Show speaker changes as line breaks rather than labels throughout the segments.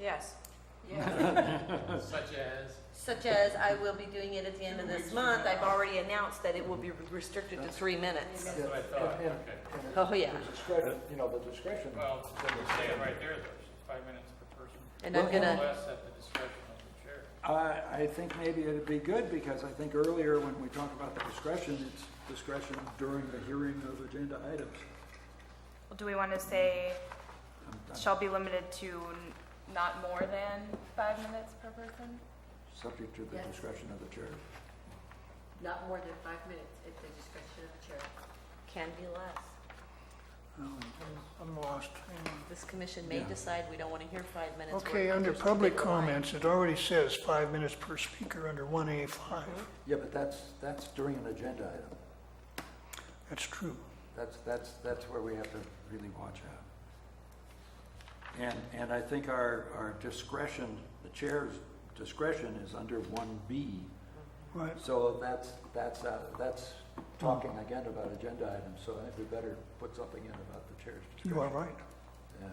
Yes.
Such as?
Such as I will be doing it at the end of this month. I've already announced that it will be restricted to three minutes.
That's what I thought, okay.
And- and- and
Oh, yeah.
the discretion, You know, the discretion.
Well, we're saying right there, there's five minutes per person,
And I'm
or
gonna,
less at the discretion of the chair.
I, I think maybe it'd be good, because I think earlier when we talk about the discretion, it's discretion during the hearing of agenda items.
Well, Do we want to say
I'm- I'm-
shall be limited to n- not more than five minutes per person?
Subject to the
Yes.
discretion of the chair.
Not more than five minutes at the discretion of the chair.
can be less.
I'm lost.
This commission may
Yeah.
decide we don't want to hear five minutes. worth
Okay,
of
under
just
public
big line.
comments, it already says five minutes per speaker under 1A5.
Yeah, but that's, that's during an agenda item.
That's true.
That's, that's, that's where we have to really watch out. And, and I think our, our discretion, the chair's discretion is under one B.
Right.
So that's, that's, uh, that's talking again about agenda items, so I think we better put something in about the chair's discretion.
You are right.
Yeah.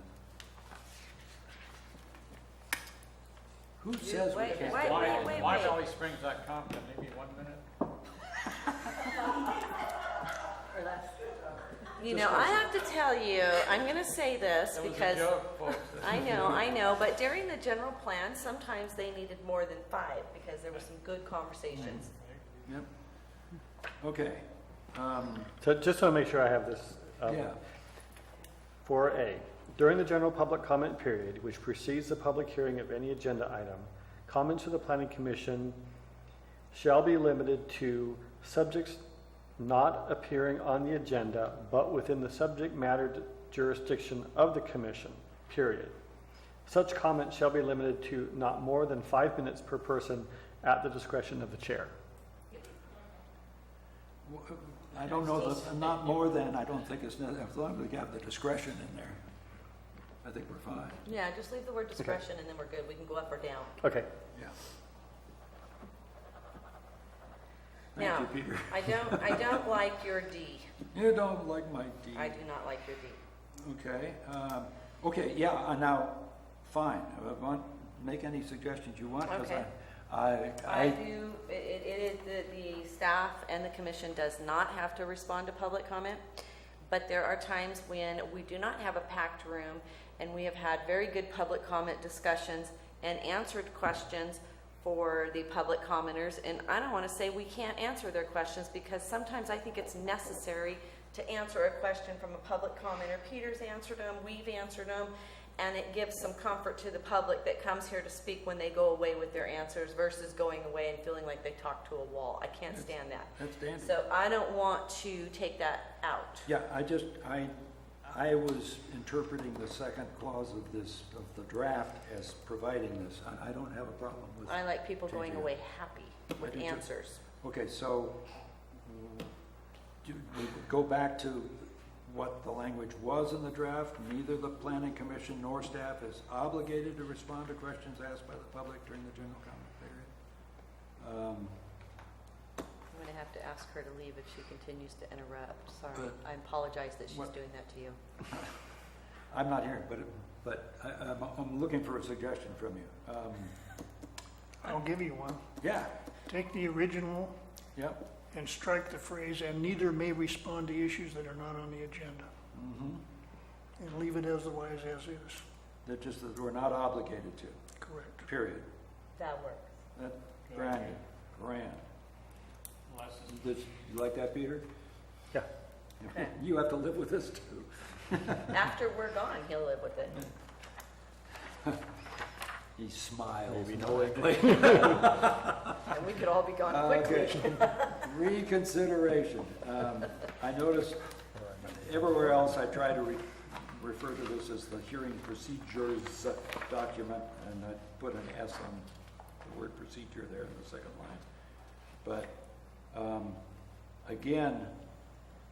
Who says we
wait,
can't?
wait,
Why,
wait, wait,
why
wait.
Valley Springs dot com, can maybe one minute?
Or less.
You know, I have to tell you, I'm gonna say this
That was a
because
joke, folks.
I know, I know, but during the general plan, sometimes they needed more than five because there were some good conversations.
Yep. Okay, um,
So just want to make sure I have this. um,
yeah,
4A, during the general public comment period, which precedes the public hearing of any agenda item, comments to the planning commission shall be limited to subjects not appearing on the agenda but within the subject matter jurisdiction of the commission, period. Such comments shall be limited to not more than five minutes per person at the discretion of the chair.
W- I don't know, the- not more than, I don't think it's, ne- as long as we have the discretion in there, I think we're fine,
Yeah, just leave the word discretion and then we're good. We can go up or down.
Okay,
yeah.
Now,
Thank you, Peter.
I don't, I don't like your D.
You don't like my D.
I do not like your D.
Okay, um, okay, yeah, uh, now, fine, Uh, want- make any suggestions you want, because I,
Okay.
I,
I
I,
do, it, it, it is, the, the staff and the commission does not have to respond to public comment, but there are times when we do not have a packed room, and we have had very good public comment discussions and answered questions for the public commenters, and I don't wanna say we can't answer their questions, because sometimes I think it's necessary to answer a question from a public commenter. Peter's answered them, we've answered them, and it gives some comfort to the public that comes here to speak when they go away with their answers versus going away and feeling like they talked to a wall. I can't stand that.
that's dandy.
So I don't want to take that out.
Mm-hmm. Yeah, I just, I, I was interpreting the second clause of this, of the draft as providing this. I, I don't have a problem with,
I like people going
Changing it.
away happy
I
with
do too.
answers.
okay, so mm, do we go back to what the language was in the draft? Neither the planning commission nor staff is obligated to respond to questions asked by the public during the general comment period. Um,
I'm gonna have to ask her to leave if she continues to interrupt. Sorry.
But-
I apologize that she's
What-
doing that to you.
I'm not hearing, but, but I, I'm, I'm looking for a suggestion from you. Um,
I'll give you one.
Yeah,
Take the original
yep.
and strike the phrase, "and neither may respond to issues that are not on the agenda,"
Mm-hmm.
and leave it as the wise as is.
That just that we're not obligated to,
Correct.
period.
That works.
That, grand, grand.
Unless it's
This- You like that, Peter?
yeah.
Okay.
You have to live with this too.
After we're gone, he'll live with it.
He smiles
Maybe not.
knowingly.
And we could all be gone quickly.
Uh, Okay. Reconsideration. Um, I noticed everywhere else I try to re- refer to this as the hearing procedures document, and I put an S on the word procedure there in the second line. But, um, again,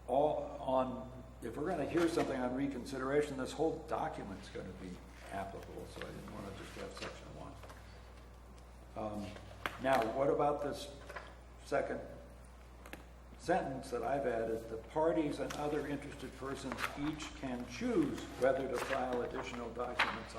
all on, if we're gonna hear something on reconsideration, this whole document's gonna be applicable, so I didn't wanna just have section one. Um, Now, what about this second sentence that I've added? The parties and other interested persons each can choose whether to file additional documents